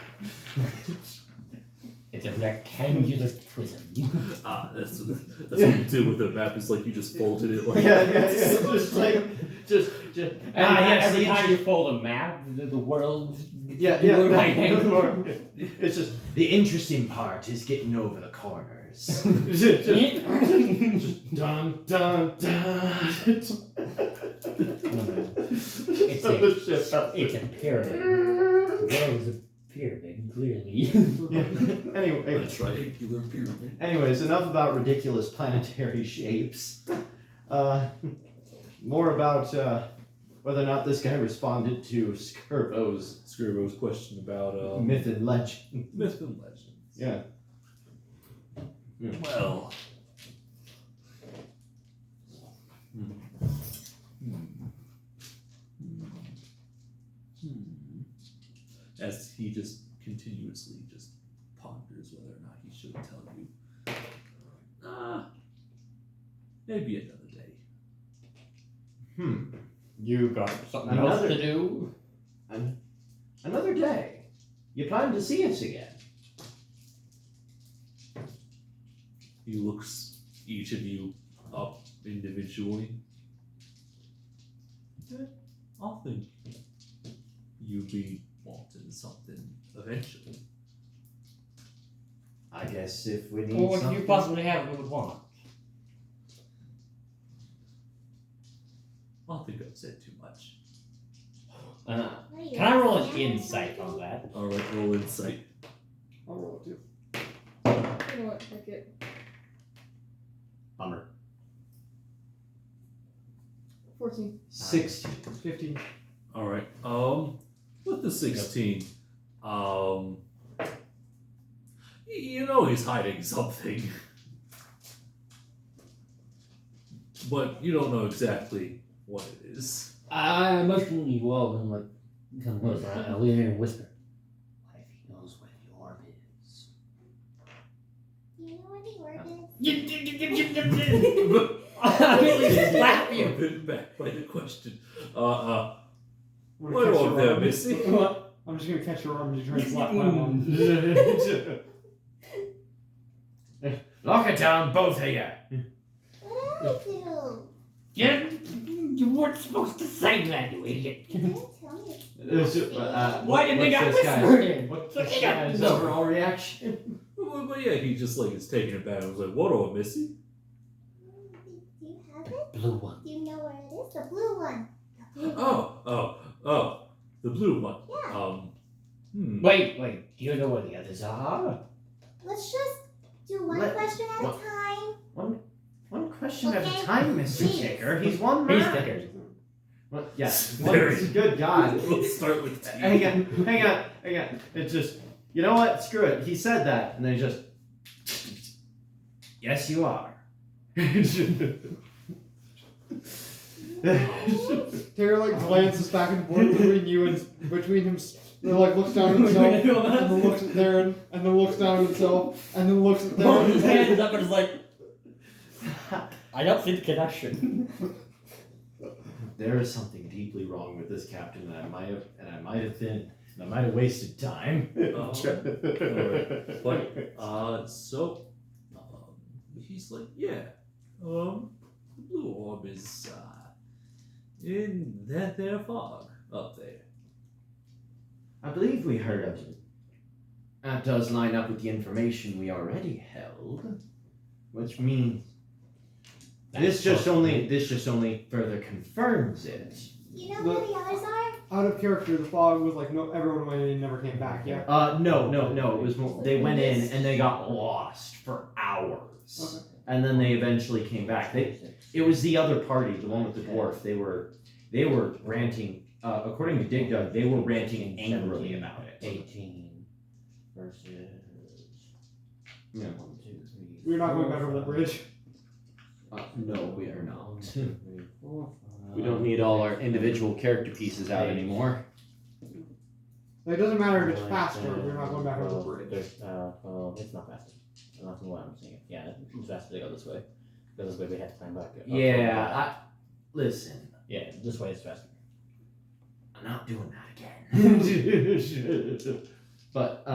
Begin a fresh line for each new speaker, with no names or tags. It's a rectangular prism.
Ah, that's, that's what you do with a map. Is like you just folded it like
yeah, yeah, yeah. Just like, just, just.
And
ah, yes,
every
each-
time you fold a map, the, the world.
Yeah,
the
yeah.
world
that-
rectangular.
It's just,
The interesting part is getting over the corners.
it's just, just, just dun dun dun. It's
It's
so
a-
the shit out
It's a pyramid. The world is a pyramid, clearly.
Yeah. Anyway,
that's right. You learn pyramid.
anyways, enough about ridiculous planetary shapes. Uh, more about uh, whether or not this guy responded to Skirbo's
Scribo's question about um,
myth and legend.
myth and legends.
Yeah.
Well, Hmm. as he just continuously just ponders whether or not he should tell you. Ah, maybe another day.
Hmm.
You got something else
Another-
to do?
Another day. You plan to see us again.
He looks each of you up individually. Eh, I'll think you'll be wanting something eventually.
I guess if we need
Well, what do
something.
you possibly have we would want?
I don't think I've said too much.
Uh, can I roll an insight on that?
Alright, roll insight.
I'll roll it too.
You know what? Fuck it.
Bummer.
14.
Sixteen. Fifteen.
Alright, um, with the 16, um, y- you know he's hiding something. But you don't know exactly what it is.
I Uh, emotionally well and like come close. I, I lean in and whisper.
What if he knows where the orb is?
You know what the word is?
I immediately slap you.
Been back by the question. Uh, uh,
I'm
what
gonna catch
are
your
there
arm.
missing?
What? I'm just gonna catch your arm and try and slap my arm.
Lock it down, both of you.
Oh.
What do I do?
You, you weren't supposed to say that, you idiot.
You didn't tell me.
uh,
Why did they
what's
got
this guy-
whispering?
What's
Look
this
at
guy's
that.
overall reaction?
Well, but yeah, he just like is taken aback. I was like, what oh, are missing?
Do you have it?
Blue one.
Do you know where it is? The blue one. The blue one.
Oh, oh, oh, the blue one.
Yeah.
Um, hmm.
Wait, wait. Do you know where the others are?
Let's just do one
Let-
question at
what-
a time.
One question at
Okay.
a time, Mr.
Jeez.
Kicker. He's one
He's
man.
thicker.
Well, yeah.
Very-
One, good God.
We'll start with T.
hang on, hang on, hang on. It's just, you know what? Screw it. He said that, and they just. Yes, you are.
Taylor like glances back and forth between you and between him. Then like looks down at himself, and then looks at Darren, and then looks down at himself, and then looks at
Holds his
Darren.
hands up and is like, I don't see the connection.
there is something deeply wrong with this captain that I might have, and I might have been, and I might have wasted time.
Oh. Alright. But uh, so um, he's like, yeah. Um, the blue orb is uh, in that there fog up there.
I believe we heard of it. That does line up with the information we already held, which means this just only this just only further confirms it.
You know where the others are?
Out of character, the fog was like no, everyone went in and never came back. Yeah.
Uh, no, no, no. It was more, they went in and they got lost for hours,
Okay.
and then they eventually came back. They it was the other party, the one with the dwarf. They were they were ranting. Uh, according to Dig Dug, they were ranting angrily about it.
18 versus.
Yeah.
One, two, three,
We're not going
four,
back over the
five,
bridge.
Uh, no, we are
one,
not.
two, three, four, five,
We don't need all our individual character pieces out anymore.
Like, it doesn't matter if it's
One,
faster.
two,
We're not going back over the
four,
bridge.
there's, Uh, well, it's not faster. I'm not gonna lie, I'm saying it. Yeah, it's faster to go this way. Because this way we had to climb back. up.
Yeah, I, listen,
Yeah, this way is faster.
I'm not doing that again. but